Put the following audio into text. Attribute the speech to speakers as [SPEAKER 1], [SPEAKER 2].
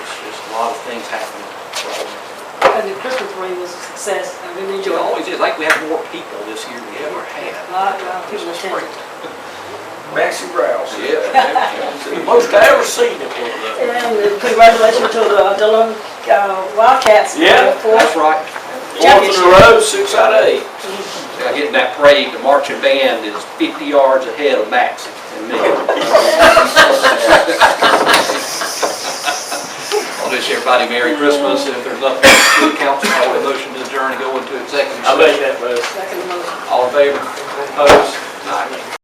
[SPEAKER 1] a lot of things happening. So,
[SPEAKER 2] And the Christmas parade was a success, I really
[SPEAKER 1] It
[SPEAKER 2] enjoyed it.
[SPEAKER 1] always is, like we have more people this year than we ever
[SPEAKER 2] A
[SPEAKER 1] had.
[SPEAKER 2] lot, uh, a lot of
[SPEAKER 1] This
[SPEAKER 2] people
[SPEAKER 1] is
[SPEAKER 2] attended.
[SPEAKER 1] great.
[SPEAKER 3] Maxie Rouse.
[SPEAKER 1] Yeah. Most I ever seen it was. uh,
[SPEAKER 2] And congratulations to the Dillon uh, Wildcats. for the
[SPEAKER 3] Yeah,
[SPEAKER 1] That's
[SPEAKER 2] fourth-
[SPEAKER 1] right.
[SPEAKER 3] Fourth in a row, six out of eight.
[SPEAKER 1] Now getting that parade, the marching band is 50 yards ahead of Max and me. I'll wish everybody Merry Christmas, and if there's nothing else to the council, I would motion to adjourn and go into executive
[SPEAKER 3] I
[SPEAKER 1] session.
[SPEAKER 3] made that motion.
[SPEAKER 2] Second motion.
[SPEAKER 1] All in favor? Opposed? Aye.